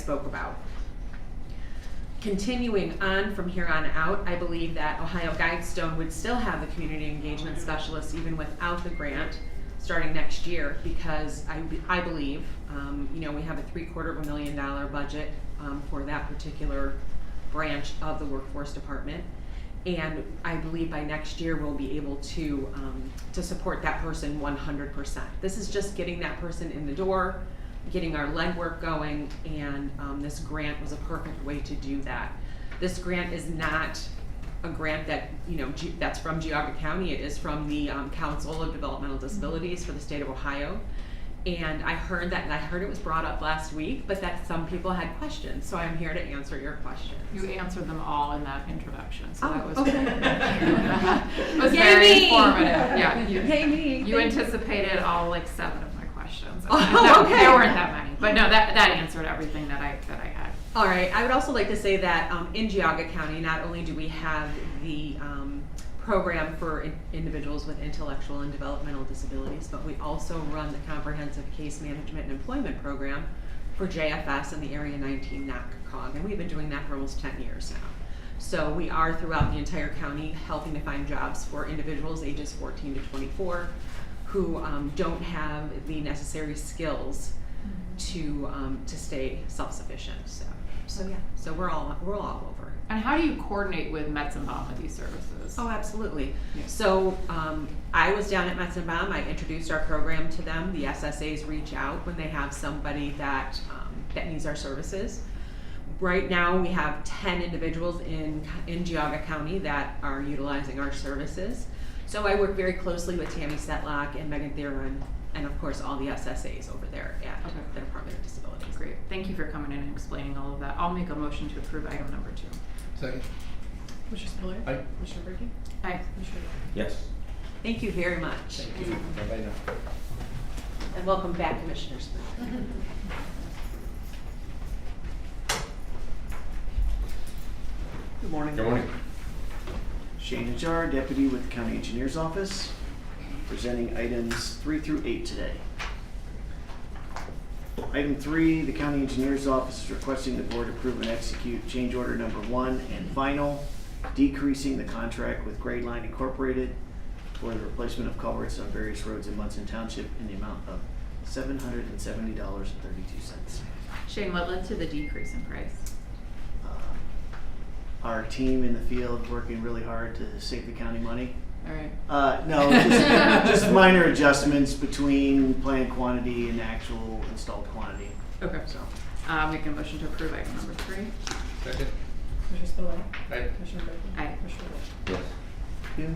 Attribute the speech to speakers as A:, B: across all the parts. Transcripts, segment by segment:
A: spoke about. Continuing on from here on out, I believe that Ohio Guidestone would still have the community engagement specialist even without the grant, starting next year, because I, I believe, um, you know, we have a three-quarter of a million dollar budget, um, for that particular branch of the workforce department. And I believe by next year, we'll be able to, um, to support that person one hundred percent. This is just getting that person in the door, getting our legwork going, and, um, this grant was a perfect way to do that. This grant is not a grant that, you know, Ge- that's from Geauga County, it is from the, um, Council of Developmental Disabilities for the state of Ohio. And I heard that, and I heard it was brought up last week, but that some people had questions, so I'm here to answer your questions.
B: You answered them all in that introduction, so that
A: Oh,
B: was.
A: okay.
B: It was
A: Yay
B: very
A: me!
B: informative, yeah. you-
A: Yay me,
B: You
A: thank you.
B: anticipated all like seven of my questions.
A: Oh,
B: No,
A: okay.
B: There weren't that many, but no, that, that answered everything that I, that I had.
A: All right, I would also like to say that um, in Geauga County, not only do we have the um, program for in- individuals with intellectual and developmental disabilities, but we also run the comprehensive case management and employment program for JFS and the Area 19 NACOG, and we've been doing that for almost 10 years now. So we are throughout the entire county helping to find jobs for individuals ages 14 to 24 who um, don't have the necessary skills to um, to stay self-sufficient. So so yeah. So we're all we're all over. it.
B: And how do you coordinate with Mets and Balm with these services?
A: Oh, absolutely.
B: Yeah.
A: So um, I was down at Metzenbaum. I introduced our program to them. The SSAs reach out when they have somebody that um, that needs our services. Right now, we have 10 individuals in, in Geauga County that are utilizing our services. So I work very closely with Tammy Setlock and Megan Theron, and of course, all the SSAs over there at
B: Okay.
A: the Department of Disabilities.
B: Great, thank you for coming in and explaining all of that. I'll make a motion to approve item number two.
C: Second.
D: Commissioner Spillier.
C: Aye.
D: Commissioner Brinkley.
B: Aye.
D: Commissioner
C: Yes.
A: Thank you very much.
C: Thank you. Bye-bye now.
A: And welcome back, Commissioner Smith.
E: Good morning. Good morning. Shane Ajar, Deputy with the County Engineers Office, presenting items three through eight today. Item three, the County Engineers Office is requesting the board approve and execute change order number one and final, decreasing the contract with Grade Line Incorporated for the replacement of culverts on various roads in Munson Township in the amount of seven hundred and seventy dollars and thirty-two cents.
B: Shane, what led to the decrease in price?
E: Uh, Our team in the field working really hard to save the county money.
B: All right.
E: Uh, no, just, just minor adjustments between planned quantity and actual installed quantity,
B: Okay.
E: so.
B: Uh, make a motion to approve item number three.
C: Second.
D: Spillier.
C: Aye.
D: Commissioner Brinkley.
B: Aye.
D: Commissioner Wood.
C: Yes.
E: yeah.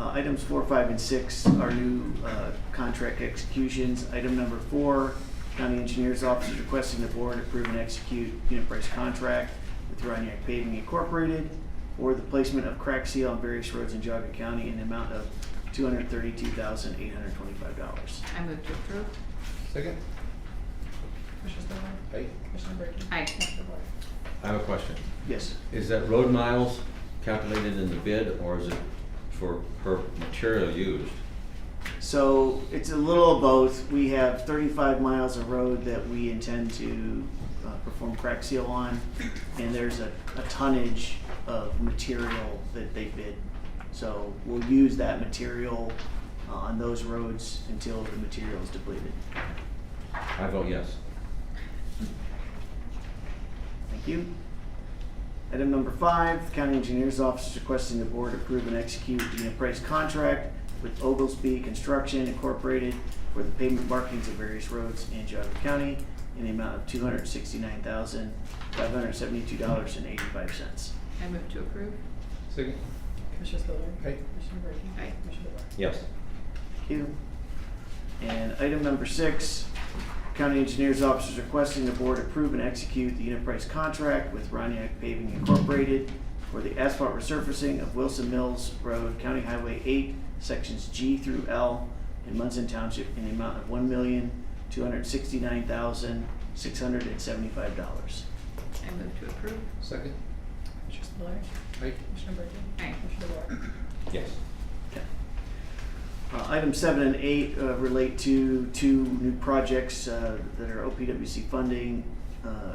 E: Uh, items four, five, and six are new, uh, contract executions. Item number four, County Engineer's Office is requesting the board approve and execute unit price contract with Rhinebeck Paving Incorporated for the placement of crack seal on various roads in Geauga County in the amount of two hundred thirty-two thousand, eight hundred twenty-five dollars.
B: I move to approve.
C: Second.
D: Commissioner Spillier.
C: Aye.
D: Commissioner Brinkley.
B: Aye.
D: Commissioner Wood.
F: I have a question.
E: Yes,
F: Is that road miles calculated in the bid or is it for per material used?
E: So it's a little of both. We have 35 miles of road that we intend to uh, perform crack seal on, and there's a, a tonnage of material that they bid. So we'll use that material uh, on those roads until the material is depleted.
F: I vote yes.
E: Thank you. Item number five, the county engineer's office is requesting the board approve and execute the price contract with Oglesby Construction Incorporated for the pavement markings of various roads in Geauga County in the amount of two hundred sixty-nine thousand, five hundred seventy-two dollars and eighty-five cents.
B: I move to approve.
C: Second.
D: Commissioner Spillier.
C: Aye.
D: Commissioner Brinkley.
B: Aye.
D: Commissioner Wood.
F: Yes.
E: Thank you. And item number six, county engineer's office is requesting the board approve and execute the unit price contract with Roniak Paving Incorporated for the asphalt resurfacing of Wilson Mills Road, County Highway eight, sections G through L in Munson Township in the amount of one million, two hundred sixty-nine thousand, six hundred and seventy-five dollars.
B: I move to approve.
C: Second.
D: Commissioner Spillier.
C: Aye.
D: Commissioner Brinkley.
B: Aye.
D: Commissioner Wood.
F: Yes.
E: Uh, Item seven and eight uh, relate to two new projects uh, that are OPWC funding. uh,